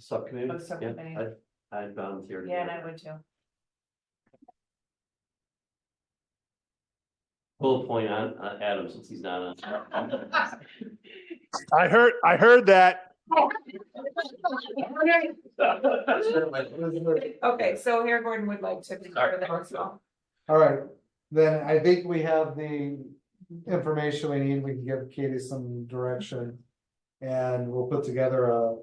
Subcommittee? Oh, the subcommittee. Yeah, I, I volunteered. Yeah, and I would too. Bullet point on, on Adam, since he's not on. I heard, I heard that. Okay, so Harry Gordon would like to be part of that as well. All right, then I think we have the information we need, we can give Katie some direction. And we'll put together a,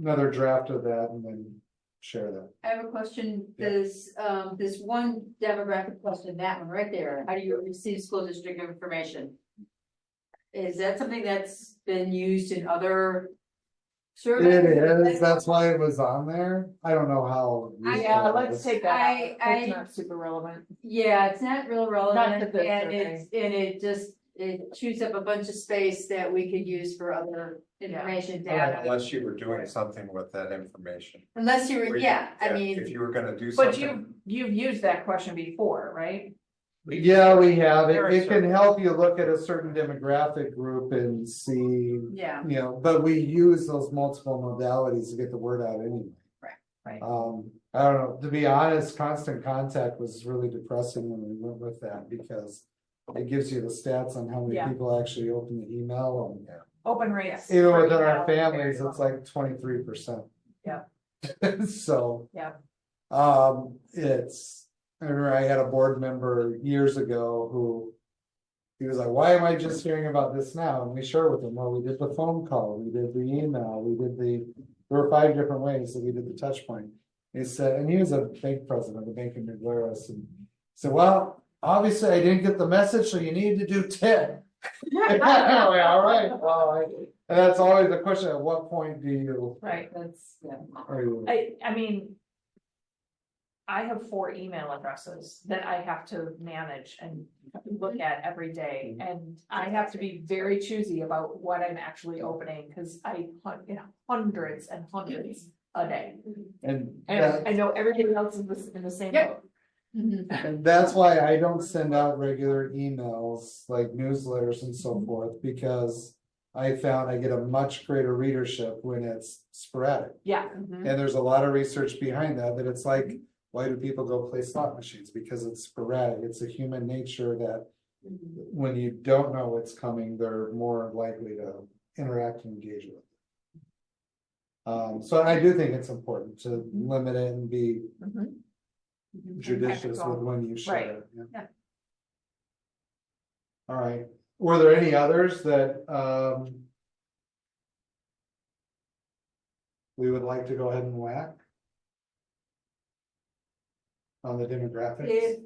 another draft of that and then share that. I have a question, this, um, this one demographic question, that one right there, how do you receive school district information? Is that something that's been used in other surveys? It is, that's why it was on there, I don't know how. uh, Yeah, useful it let's is. take that out. I- I- It's not super relevant. Yeah, it's not real Not relevant, the best and it's, and it just, it chews up a bunch of space that we could use for other information data. Unless you were doing something with that information. Unless you Where were, you- yeah, I If mean, you were gonna do But you, something, you've used that question before, right? Yeah, we have, There are it, it can certain- help you look at a certain demographic group and see, yeah, you know, but we use those multiple modalities to get the word out anyway. Right, right. Um, I don't know, to be honest, constant contact was really depressing when we went with that because. It gives you the stats on how many Yeah. people actually open the email and Open rates. even for within our email, very families, low. it's like twenty-three percent. Yeah. So. Yeah. Um, it's, I remember I had a board member years ago who. He was like, why am I just hearing about this now? And we share with him, well, we did the phone call, we did the email, we did the, there were five different ways that we did the touch point. He said, and he was a bank president of the Bank of New Glarus and he said, well, obviously I didn't get the message, so you need to do ten. Anyway, all right, well, I- and that's always the question, at what point do you? Right. that's, yeah. Are you? I, I mean. I have four email addresses that I have to manage and look at every day, and I have to be very choosy about what I'm actually opening, cause I hunt, you know, hundreds and hundreds a day. And And that, I know everybody else is this- in the same Yep. boat. Mm-hmm. Mhm. and that's why I don't send out regular emails, like newsletters and Mm-hmm. so forth, because. I found I get a much greater readership when it's sporadic, Yeah, Mm-hmm. and there's a lot of research behind that, that it's like. Why do people go play slot machines? Because it's sporadic, it's a human nature that. When you don't know what's coming, they're more likely to interact and engage with. it. Um, so I do think it's important to limit it and be Mhm. judicious Ethical. with when you Right. share. it, Yeah. All right, were there any others that, um. We would like to go ahead and whack? On the demographics? If.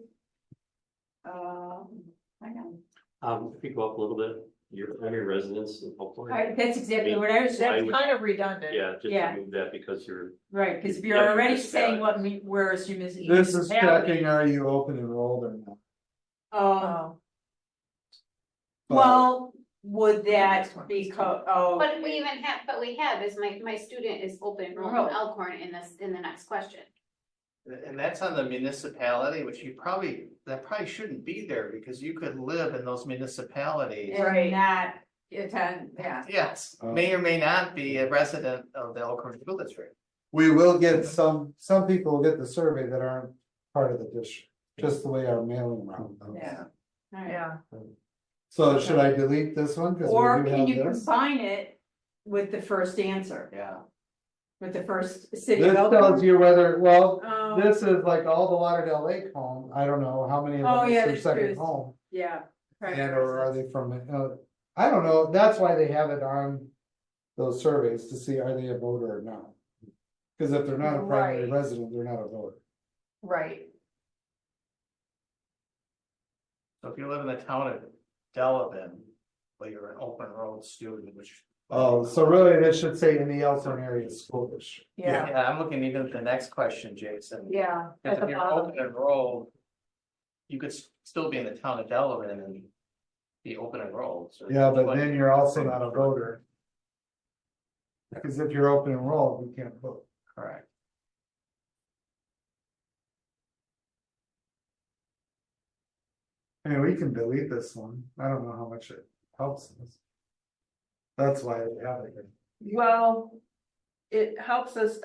Um, I know, Um, if you go up a little bit, your primary residence in Oakland. I- that's exactly what I was, I that's would- kind of redundant. Yeah, just Yeah. remove that because you're, right, because we Yeah, are already it's saying valid. what we, we're assuming is. This is municipality. checking, are you open enrolled or not? Um, Oh, But- well, would that be co- oh. But we even have, but we have is my, my student is open enrollment in Elkhorn in this, in the next question. And that's on the municipality, which you probably, that probably shouldn't be there because you could live in those municipalities. And not attend, yeah. Yes, uh, may or may not be a resident of the Elkhorn School District. We will get some, some people will get the survey that aren't part of the district, just the way our mailing route. goes. Yeah. Alright. Oh, yeah, So should I delete this one? 'Cause we Or do can have you this. combine it with the first answer, Yeah. with the first city? This of tells you whether, well, Elkhorn? Um, this is like all the Lauderdale Lake home, I don't know how many of Oh, them yeah, is their that's true. second home. yeah. correct. And or are they from, uh, I don't know, that's why they have it on those surveys to see are they a voter or not. Cause if they're not a primary Right. resident, they're not a voter. right, So if you live in the town of Delavan, well, you're an open enrolled student, which. Oh, so really, this should say in the Elkhorn area school district. yeah, Yeah, I'm looking even at the next question, Jason. yeah. Because At the if you're bottom, open enrolled, you could s- still be in the town of Delavan and be open enrolled. so- Yeah, but then you're also not a voter. Cause if you're open enrolled, you can't vote. Correct. I mean, we can delete this one, I don't know how much it helps us. That's why we have it here. Well, it helps us,